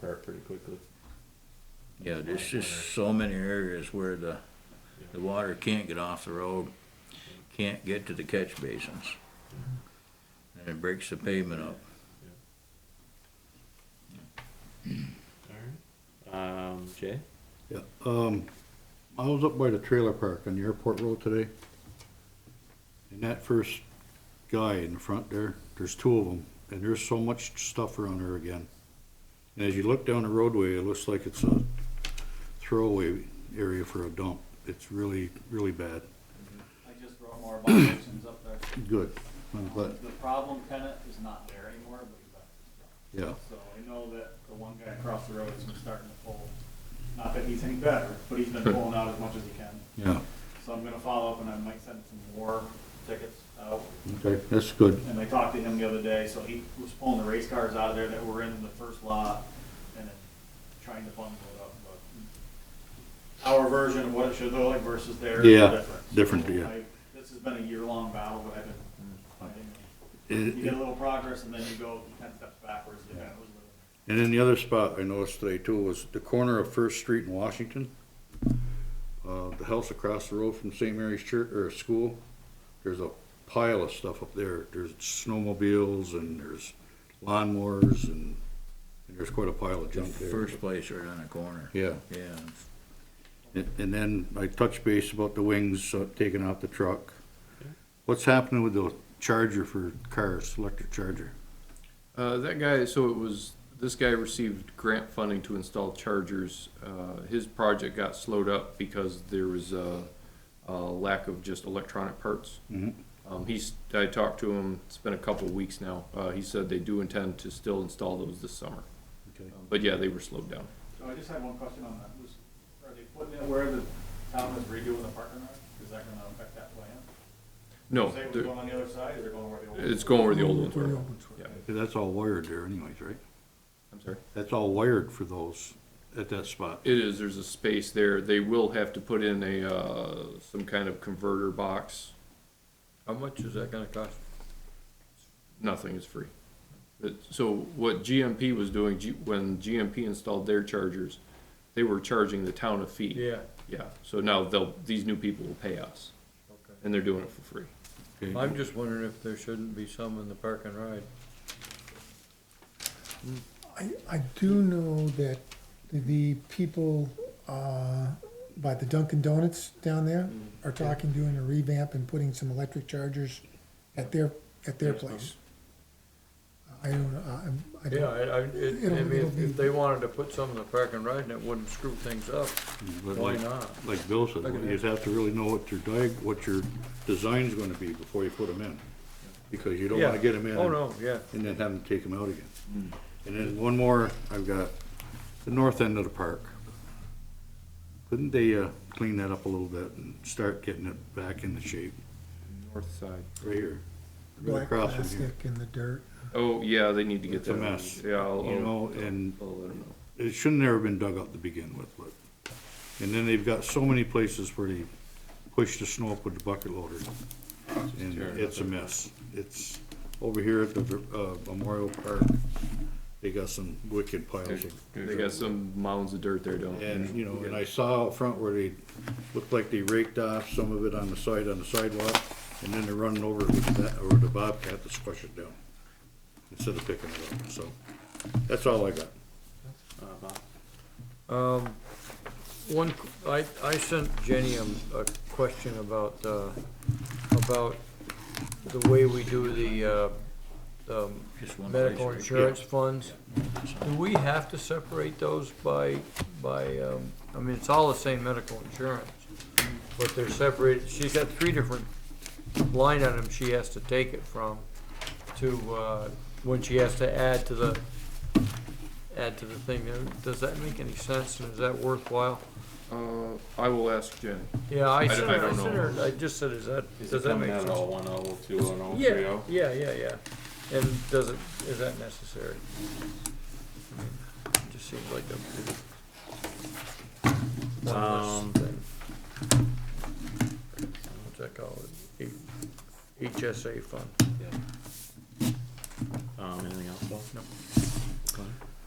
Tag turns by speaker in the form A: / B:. A: there pretty quickly.
B: Yeah, there's just so many areas where the, the water can't get off the road, can't get to the catch basins. And it breaks the pavement up.
A: All right. Um, Jay?
C: Yeah, um, I was up by the trailer park on the airport road today. And that first guy in the front there, there's two of them, and there's so much stuff around there again. And as you look down the roadway, it looks like it's a throwaway area for a dump. It's really, really bad.
D: I just wrote more violations up there.
C: Good, I'm glad,
D: The problem tenant is not there anymore, but he's up.
C: yeah.
D: So I know that the one guy across the road has been starting to pull, not that he's any better, but he's been pulling out as much as he can.
C: Yeah,
D: So I'm gonna follow up and I might send some more tickets out.
C: okay, that's good.
D: And I talked to him the other day, so he was pulling the race cars out of there that were in the first lot and then trying to bundle it up, but our version of what it should look like versus theirs is
C: Yeah,
D: different.
C: different,
D: So
C: yeah.
D: I- This has been a year-long battle, but I've been fighting. You get
C: It-
D: a little progress and then you go ten steps backwards, depending on who's living.
C: And then the other spot I noticed today too was the corner of First Street in Washington. Uh, the house across the road from St. Mary's Church or school, there's a pile of stuff up there. There's snowmobiles and there's lawnmowers and, and there's quite a pile of
B: The
C: junk there.
B: first place right on the corner.
C: Yeah,
B: Yeah,
C: and, and then I touched base about the wings uh, taken off the truck. What's happening with the charger for cars, electric charger?
E: Uh, that guy, so it was, this guy received grant funding to install chargers. Uh, his project got slowed up because there was a, a lack of just electronic parts.
C: Mhm.
E: Um, he's, I talked to him, it's been a couple of weeks now. Uh, he said they do intend to still install those this summer.
C: Okay.
E: Um, But yeah, they were slowed down.
D: So I just had one question on that, was, are they putting it where the town is redoing the parking lot? Is that gonna affect that plan?
E: No,
D: Say what's
E: they're-
D: going on the other side, is it going where the old?
E: it's going where the old ones were. Yeah,
C: That's all wired there anyways, right?
E: I'm sorry.
C: That's all wired for those at that spot.
E: It is, there's a space there. They will have to put in a, uh, some kind of converter box. How much is that gonna cost? Nothing, it's free. It- so what GMP was doing, G, when GMP installed their chargers, they were charging the town a fee. Yeah. Yeah, so now they'll, these new people will pay us. Okay. And they're doing it for free.
C: Okay.
F: I'm just wondering if there shouldn't be some in the park and ride.
G: I, I do know that the people, uh, by the Dunkin' Donuts down there
F: Mm-hmm.
G: are talking, doing a revamp and putting some electric chargers at their, at their place. I don't, know, I'm, I
F: Yeah,
G: don't,
F: I, I, it-
G: It'll-
F: I mean,
G: it'll
F: if-
G: be-
F: if they wanted to put some in the park and ride and it wouldn't screw things up,
C: But
F: why
C: like-
F: not?
C: Like Bill said,
F: Like an
C: you'd have to really know what your diag, what your design's gonna be before you put them in. Because you don't wanna
F: Yeah.
C: get them in.
F: Oh, no, yeah. Hmm.
C: And then have them take them out again. And then one more, I've got the north end of the park. Couldn't they, uh, clean that up a little bit and start getting it back into shape,
E: North side.
C: right here? Right
G: black
C: across from here.
G: plastic in the dirt.
E: Oh, yeah, they need to get
C: It's a
E: that.
C: mess, you
E: Yeah, I'll, I'll,
C: know, and
E: I'll let 'em know.
C: it shouldn't have ever been dug up to begin with, but. And then they've got so many places where they push the snow up with the bucket loader. And it's a mess. It's over here at the, uh, Memorial Park, they got some wicked piles of.
E: They got some mounds of dirt there, don't they?
C: And, you know, and I saw out front where they looked like they raked off some of it on the side, on the sidewalk, and then they're running over with that, or the Bobcat to squash it down. Instead of picking it up, so, that's all I got.
A: Uh, Bob?
F: Um, one, q- I, I sent Jenny a, a question about, uh, about the way we do the, uh, um,
B: just one place.
F: medical insurance funds. Do we have to separate those by, by, um, I mean, it's all the same medical insurance, but they're separated, she's got three different line items she has to take it from to, uh, when she has to add to the, add to the thing. Uh, Does that make any sense and is that worthwhile?
E: Uh, I will ask Jenny.
F: Yeah, I
E: I
F: sent
E: don't
F: her, I sent
E: know.
F: her, I just said, is that,
A: Is
F: does
A: it
F: that
A: coming
F: make
A: out all
F: sense?
A: one oh, two and oh, three
F: Yeah,
A: oh?
F: yeah, yeah, yeah. And does it, is that necessary? I mean, it Just seems like a. one less
A: Um,
F: thing. What's that called? E- HSA fund.
A: Um, anything else, Bob?
F: No.